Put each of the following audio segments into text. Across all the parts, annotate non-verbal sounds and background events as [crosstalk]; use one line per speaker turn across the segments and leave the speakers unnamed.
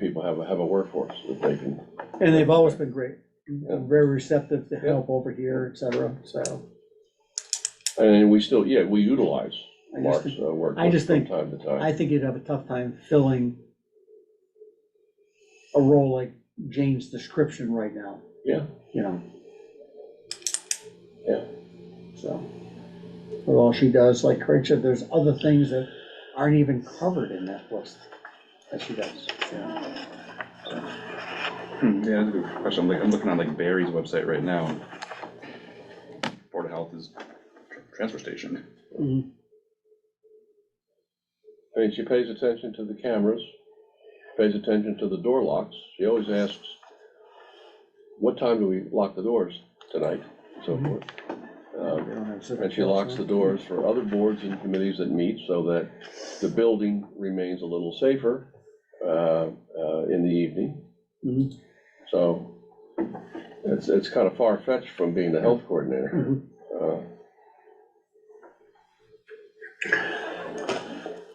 have a, have a workforce that they can,
And they've always been great, and very receptive to help over here, et cetera, so.
and we still, yeah, we utilize
I just
Mark's
think-
uh, work
I just
from
think-
time to
I
time.
think you'd have a tough time filling a role like Jane's description right now,
Yeah,
you know?
Yeah.
So, with all she does, like Craig said, there's other things that aren't even covered in that list that she does, you know?
Hmm, Yeah, that's a good question. I'm like, I'm looking on like Barry's website right now. and Board of Health is tr- transfer station.
Mhm.
I mean, she pays attention to the cameras, pays attention to the door locks. She always asks, what time do we lock the doors tonight,
Mm-hmm.
so forth. Um,
They don't have civic
And she locks the
council.
doors for other boards and committees that meet so that the building remains a little safer uh, uh, in the evening.
Mhm.
So it's, it's kind of far-fetched from being the health
Mm-hmm.
coordinator. Uh,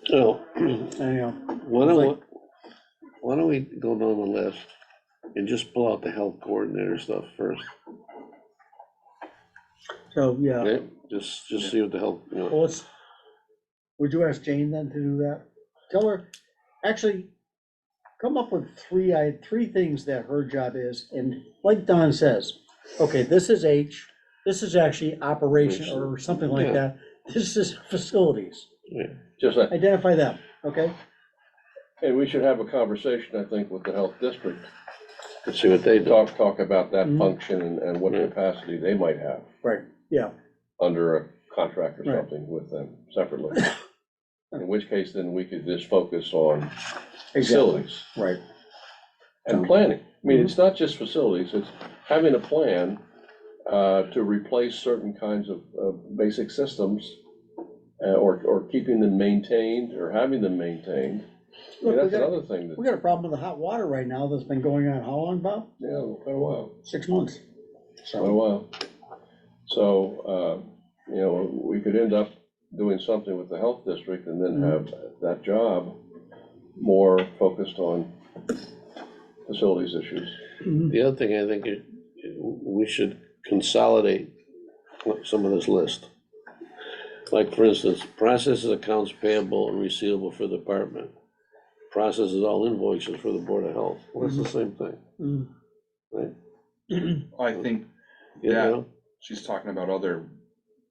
So,
Anyhow,
why don't, why don't we go down the list and just pull out the health coordinator stuff first?
so, yeah.
Okay, just, just see what the health, you know,
Well, let's, would you ask Jane then to do that? Tell her, actually, come up with three, I, three things that her job is, and like Don says, okay, this is H, this is actually operation or something like that, this is facilities,
Just that,
identify them, okay?
and we should have a conversation, I think, with the health district.
see what they do.
Talk, talk about that
Mhm.
function and- and what
Yeah.
capacity they might have
Right. Yeah,
under a contract or
Right.
something with them
[coughs]
separately. In which case, then we could just focus on
exactly,
facilities.
right,
And
Um,
planning. I mean, it's not just facilities, it's having a plan uh, to replace certain kinds of, of basic systems uh, or, or keeping them maintained or having them maintained. I mean,
Look, we
That's
got-
another thing that,
we got a problem with the hot water right now that's been going on, how long, Bob?
you know, quite a while,
Six months,
quite a
so,
while. So, uh, you know, we could end up doing something with the health district and then have that job more focused on facilities issues.
mhm,
The other thing I think is, we should consolidate some of this list. Like, for instance, processes accounts payable and receivable for the department, processes all invoices for the Board of Health, well, that's the same thing,
mhm, [clears throat]
I think
you
Yeah.
know?
she's talking about other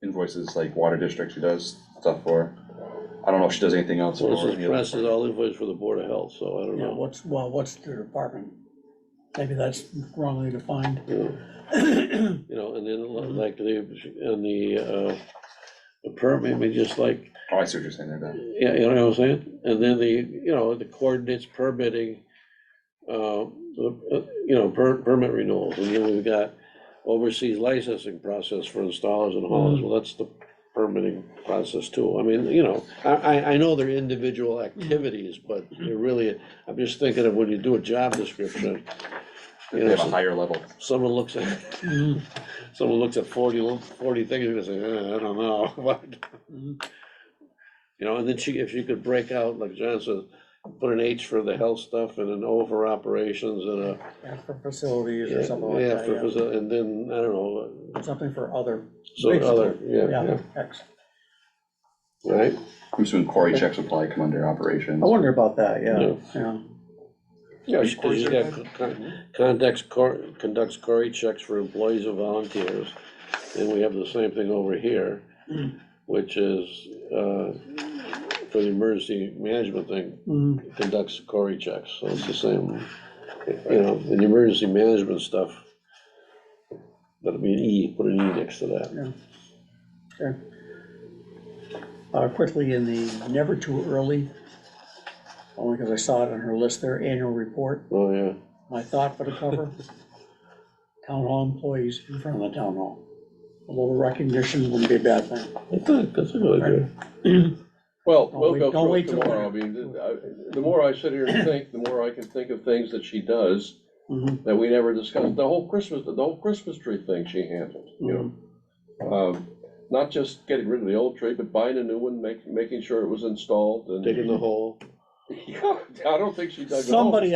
invoices like water district she does stuff for. I don't know if she does anything else.
So
or
this
any
is
other-
processes all invoices for the Board of Health, so I don't
yeah,
know.
what's, well, what's the department? Maybe that's wrongly defined. [clears throat] Mm-hmm.
you know. You know, and then li- like the, and the, uh, the permit, maybe just like,
Oh, I see what you're saying there, Dan.
yeah, you know what I'm saying? And then the, you know, the coordinates permitting, uh, the, uh, you know, per, permit renewals, and then we've got overseas licensing process for installers and haulers, well, that's the permitting process too. I mean, you know, I, I, I know they're individual activities, but they're really, I'm just thinking of when you do a job description, you
They
know,
have a
so-
higher level.
someone looks at [laughs]
Mhm,
someone looks at 40 lo- 40 things, you're gonna say, "Eh, I don't know, [laughs] but,
mhm,
you know, and then she, if you could break out, like John says, put an H for the health stuff and an O for operations and a.
yeah, For facilities or
yeah,
something like
yeah,
that,
for-
yeah.
for- And then, I don't know,
Something for other,
so
Basically,
other, yeah,
yeah,
yeah,
X.
right?
I'm assuming Cory checks would probably come under operations.
I wonder about that, yeah,
Yeah.
yeah.
Yeah,
She- she's got con- Conducts, cor- conducts query checks for employees and volunteers, and we have the same thing over here, which is, uh, for the emergency management thing,
Mhm,
conducts Cory checks, so it's the same, you know, in the emergency management stuff. That'll be an E, put an E next to that.
okay. Uh, quickly, in the never too early, only because I saw it on her list there, annual report,
Oh, yeah,
my thought for the [laughs] cover. Town hall employees in front of the town hall. A little recognition wouldn't be a bad thing.
that's a, that's a good idea.
[clears throat]
Well,
Don't
we'll
wait-
go
don't
through it
wait till
tomorrow, I
later.
mean, th- I- the more I sit here and think, the more I can think of things that she does
Mhm,
that we never discussed, the whole Christmas, the whole Christmas tree thing she handled, you know?
Mm-hmm.
Um, Not just getting rid of the old tree, but buying a new one, making, making sure it was installed and.
Digging the hole.
Yeah, [laughs] I don't think she dug a hole.
Somebody